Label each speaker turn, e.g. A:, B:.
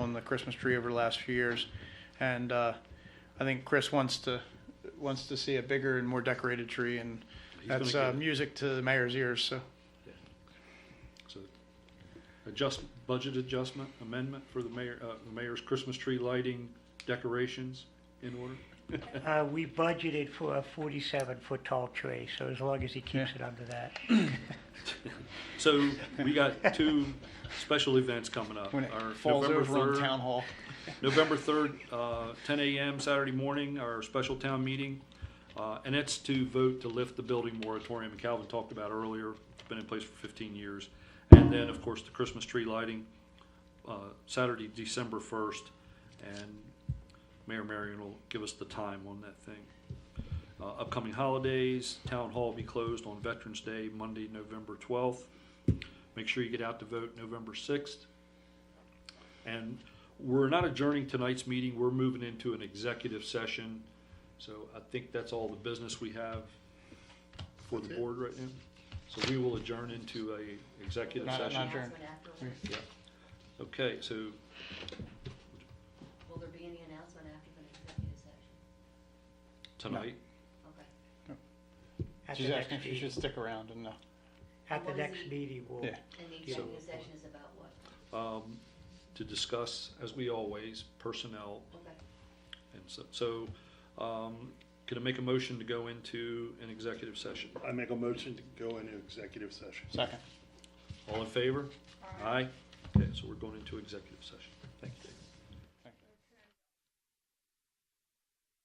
A: from the Christmas tree over the last few years. And uh, I think Chris wants to wants to see a bigger and more decorated tree, and
B: He's gonna
A: that's
B: get
A: uh,
B: it.
A: music to the mayor's ears. So
B: So, adjust, budget adjustment amendment for the mayor, uh, the mayor's Christmas tree lighting decorations in order?
C: Uh, we budgeted for a forty-seven foot tall tree, so as long as he keeps it under that.
B: So, we got two special events coming up.
A: when it
B: Our
A: falls
B: November
A: over on
B: 3rd
A: town hall,
B: November 3rd, uh, 10 a.m. Saturday morning, our special town meeting. Uh, And it's to vote to lift the building moratorium Calvin talked about earlier. It's been in place for 15 years. And then, of course, the Christmas tree lighting, uh, Saturday, December 1st. And Mayor Marion will give us the time on that thing. Uh, Upcoming holidays, Town Hall will be closed on Veterans Day, Monday, November 12th. Make sure you get out to vote November 6th. And we're not adjourning tonight's meeting, we're moving into an executive session. So I think that's all the business we have for the board right now. So we will adjourn into a executive
A: Not-
B: session.
A: not adjourn.
D: Announcement afterwards.
B: Okay, so
D: Will there be any announcement after the executive session?
B: tonight,
D: Okay.
C: At the
A: she's
C: next
A: asking if she
C: meeting-
A: should stick around and. Uh,
C: At the
D: What was
C: next
D: the-
C: meeting, we'll,
A: Yeah.
D: And the
C: Yeah.
D: executive session is about what?
B: um, to discuss, as we always, personnel
D: Okay.
B: And so, so, um, can I make a motion to go into an executive session?
E: I make a motion to go into executive session.
A: second.
B: All in favor? Aye. Okay, so we're going into executive session.